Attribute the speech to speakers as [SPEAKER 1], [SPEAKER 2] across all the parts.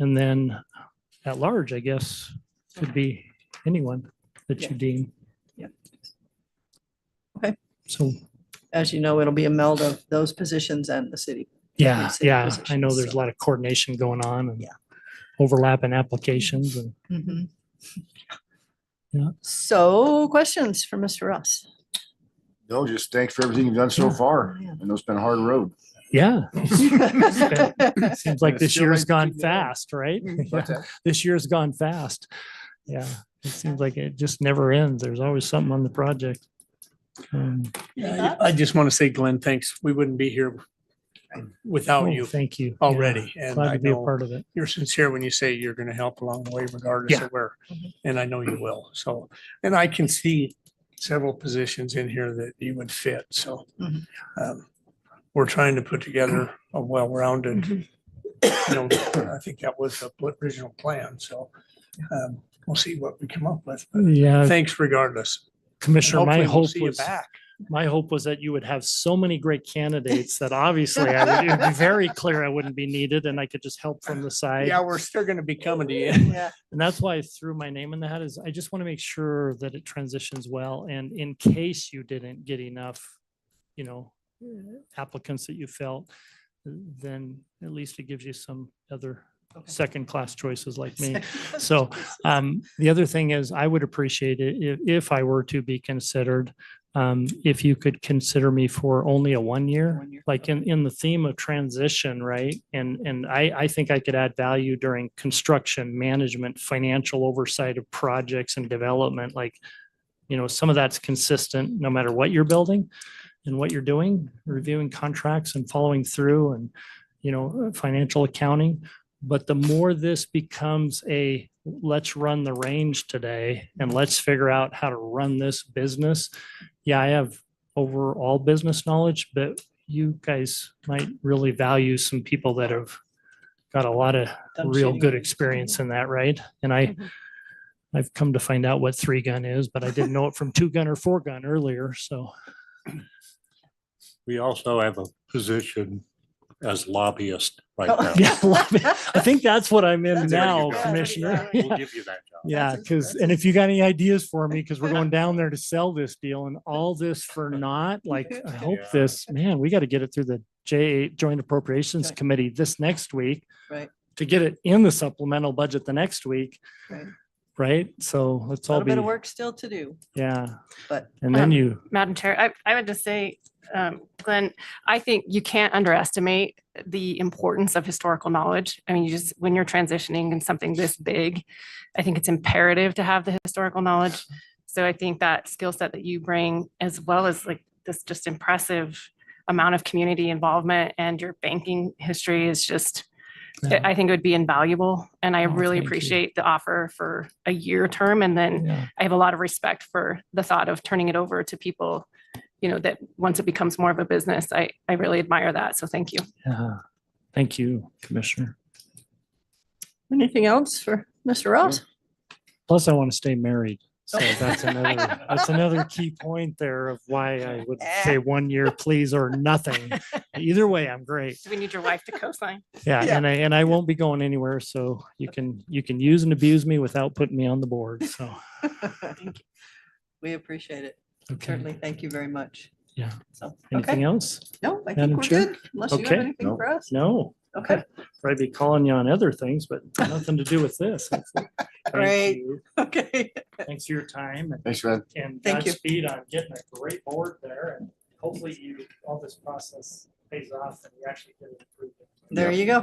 [SPEAKER 1] And then at large, I guess, could be anyone that you deem.
[SPEAKER 2] Yeah. Okay.
[SPEAKER 1] So,
[SPEAKER 2] As you know, it'll be a meld of those positions and the city.
[SPEAKER 1] yeah,
[SPEAKER 2] city
[SPEAKER 1] yeah, I
[SPEAKER 2] positions,
[SPEAKER 1] know there's a
[SPEAKER 2] so.
[SPEAKER 1] lot of coordination going on and
[SPEAKER 2] Yeah.
[SPEAKER 1] overlapping applications and
[SPEAKER 2] Mm-hmm.
[SPEAKER 1] Yeah.
[SPEAKER 2] So questions for Mr. Ross?
[SPEAKER 3] No, just thanks for everything you've done so
[SPEAKER 1] Yeah.
[SPEAKER 3] far. I know it's been a hard road.
[SPEAKER 1] yeah,
[SPEAKER 2] Good
[SPEAKER 1] seems like
[SPEAKER 3] It's
[SPEAKER 1] this
[SPEAKER 3] still
[SPEAKER 1] year's
[SPEAKER 3] like
[SPEAKER 1] gone
[SPEAKER 4] uh,
[SPEAKER 3] keep going.
[SPEAKER 1] fast, right?
[SPEAKER 4] Mm-hmm.
[SPEAKER 3] But
[SPEAKER 1] Yeah,
[SPEAKER 3] that-
[SPEAKER 1] This year's gone fast. Yeah, it seems like it just never ends. There's always something on the project. Um,
[SPEAKER 4] Yeah, I I just want to say, Glenn, thanks. We wouldn't be here without
[SPEAKER 1] oh,
[SPEAKER 4] you
[SPEAKER 1] Thank you. Yeah,
[SPEAKER 4] already. And
[SPEAKER 1] Glad
[SPEAKER 4] I
[SPEAKER 1] to be a
[SPEAKER 4] know
[SPEAKER 1] part of it.
[SPEAKER 4] you're sincere when you say you're going to help along the way regardless
[SPEAKER 1] Yeah.
[SPEAKER 4] of where.
[SPEAKER 2] Mhm.
[SPEAKER 4] And I know you will. So, and I can see several positions in here that you would fit. So
[SPEAKER 2] Mhm.
[SPEAKER 4] um, we're trying to put together a well-rounded, you know, I think that was the original plan. So um, we'll see what we come up with. But
[SPEAKER 1] Yeah,
[SPEAKER 4] thanks regardless. And
[SPEAKER 1] Commissioner, Uh, my
[SPEAKER 4] hopefully we'll
[SPEAKER 1] hope
[SPEAKER 4] see you
[SPEAKER 1] was.
[SPEAKER 4] back.
[SPEAKER 1] My hope was that you would have so many great candidates that obviously I would, it'd be very clear I wouldn't be needed and I could just help from the side.
[SPEAKER 4] Yeah, we're still going to be coming to you.
[SPEAKER 2] Yeah.
[SPEAKER 1] And that's why I threw my name in the hat is I just want to make sure that it transitions well. And in case you didn't get enough, you know, applicants that you felt, then at least it gives you some other
[SPEAKER 2] Okay.
[SPEAKER 1] second-class choices like me. So um, the other thing is I would appreciate it if, if I were to be considered, um, if you could consider me for only a one year,
[SPEAKER 2] One year.
[SPEAKER 1] like in, in the theme of transition, right? And, and I, I think I could add value during construction, management, financial oversight of projects and development, like, you know, some of that's consistent no matter what you're building and what you're doing, reviewing contracts and following through and, you know, financial accounting. But the more this becomes a, let's run the range today and let's figure out how to run this business. Yeah, I have overall business knowledge, but you guys might really value some people that have got a lot of
[SPEAKER 2] Done
[SPEAKER 1] real
[SPEAKER 2] shooting.
[SPEAKER 1] good experience in that, right? And I,
[SPEAKER 5] Mm-hmm.
[SPEAKER 2] Mhm.
[SPEAKER 1] I've come to find out what three gun is, but I didn't know it from two gun or four gun earlier, so.
[SPEAKER 5] We also have a position as lobbyist right
[SPEAKER 2] Oh.
[SPEAKER 5] now.
[SPEAKER 1] Yeah, love it. I think that's what I'm in
[SPEAKER 2] That's
[SPEAKER 5] where you
[SPEAKER 1] now,
[SPEAKER 5] go.
[SPEAKER 1] Commissioner. Yeah.
[SPEAKER 5] We'll give you that job.
[SPEAKER 1] Yeah,
[SPEAKER 2] That's
[SPEAKER 1] because, and if you got any ideas for me, because we're going down there to sell this deal and all this for naught, like, I hope
[SPEAKER 5] Yeah.
[SPEAKER 1] this, man, we got to get it through the J Joint Appropriations
[SPEAKER 2] Right.
[SPEAKER 1] Committee this next week.
[SPEAKER 2] Right.
[SPEAKER 1] To get it in the supplemental budget the next week.
[SPEAKER 2] Right.
[SPEAKER 1] Right? So let's all
[SPEAKER 2] Little
[SPEAKER 1] be,
[SPEAKER 2] bit of work still to do,
[SPEAKER 1] yeah.
[SPEAKER 2] but
[SPEAKER 1] And then
[SPEAKER 6] Um,
[SPEAKER 1] you,
[SPEAKER 6] Madam Chair, I, I would just say, um, Glenn, I think you can't underestimate the importance of historical knowledge. I mean, you just, when you're transitioning in something this big, I think it's imperative to have the historical knowledge. So I think that skill set that you bring, as well as like this just impressive amount of community involvement and your banking history is just,
[SPEAKER 1] Yeah.
[SPEAKER 6] I think it would be invaluable. And I
[SPEAKER 1] Oh, thank
[SPEAKER 6] really
[SPEAKER 1] you.
[SPEAKER 6] appreciate the offer for a year term and then
[SPEAKER 1] yeah,
[SPEAKER 6] I have a lot of respect for the thought of turning it over to people, you know, that once it becomes more of a business, I, I really admire that. So thank you.
[SPEAKER 1] yeah. Thank you, Commissioner.
[SPEAKER 2] anything else for Mr. Ross?
[SPEAKER 1] Plus, I want to stay married. So
[SPEAKER 2] Oh.
[SPEAKER 1] that's another, that's another key point there of why I would say one year, please, or nothing. Either way, I'm great.
[SPEAKER 6] Do we need your wife to co-sign?
[SPEAKER 1] Yeah,
[SPEAKER 2] Yeah.
[SPEAKER 1] and I and I won't be going anywhere, so you can you can use and abuse me without putting me on the board. So
[SPEAKER 2] We appreciate it.
[SPEAKER 1] okay.
[SPEAKER 2] Certainly. Thank you very much.
[SPEAKER 1] Yeah.
[SPEAKER 2] So,
[SPEAKER 1] Anything
[SPEAKER 2] okay.
[SPEAKER 1] else?
[SPEAKER 2] No, I think
[SPEAKER 1] Madam
[SPEAKER 2] we're
[SPEAKER 1] Chair?
[SPEAKER 2] good. Unless you have
[SPEAKER 1] Okay.
[SPEAKER 2] anything
[SPEAKER 3] Nope.
[SPEAKER 2] for us.
[SPEAKER 1] No,
[SPEAKER 2] Okay.
[SPEAKER 1] probably be calling you on other things, but nothing to do with this. Thank
[SPEAKER 2] Great.
[SPEAKER 1] you.
[SPEAKER 2] Okay.
[SPEAKER 1] Thanks for your time and-
[SPEAKER 3] Thanks, man.
[SPEAKER 1] and
[SPEAKER 2] Thank you.
[SPEAKER 1] Godspeed on getting a great board there. And hopefully you, all this process pays off and you actually get it approved.
[SPEAKER 2] There you go.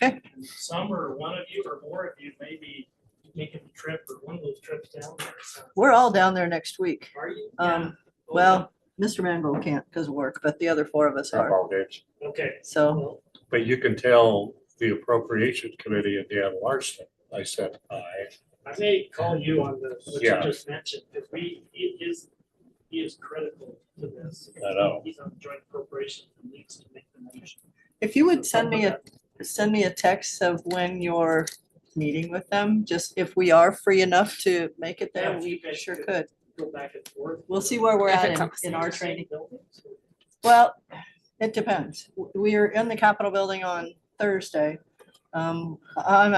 [SPEAKER 1] And Some or one of you or more of you may be making the trip or one of those trips down there. so-
[SPEAKER 2] We're all down there next week.
[SPEAKER 1] Are you? Oh, Yeah.
[SPEAKER 2] Um, Well, Mr. Mangold can't because of work, but the other four of us are.
[SPEAKER 5] Football games.
[SPEAKER 1] Okay.
[SPEAKER 2] So,
[SPEAKER 1] Well,
[SPEAKER 5] But you can tell the appropriation committee at Dan Larson, I said aye.
[SPEAKER 1] I may call you on the, what you
[SPEAKER 5] Yeah.
[SPEAKER 1] just mentioned, because we, he is, he is critical to this.
[SPEAKER 5] I know.
[SPEAKER 1] He's on joint appropriations and needs to make the motion.
[SPEAKER 2] if you would send me a send me a text of when you're meeting with them, just if we are free enough to make it
[SPEAKER 1] Yeah,
[SPEAKER 2] there,
[SPEAKER 1] if
[SPEAKER 2] we
[SPEAKER 1] you guys
[SPEAKER 2] sure
[SPEAKER 1] could.
[SPEAKER 2] could.
[SPEAKER 1] Go back and forth.
[SPEAKER 2] We'll see where we're
[SPEAKER 6] If
[SPEAKER 2] at
[SPEAKER 6] it's
[SPEAKER 2] in,
[SPEAKER 6] on the
[SPEAKER 2] in our
[SPEAKER 6] same
[SPEAKER 2] training.
[SPEAKER 1] Building, so-
[SPEAKER 2] Well, it depends. W- We are in the Capitol building on Thursday. Um, I'm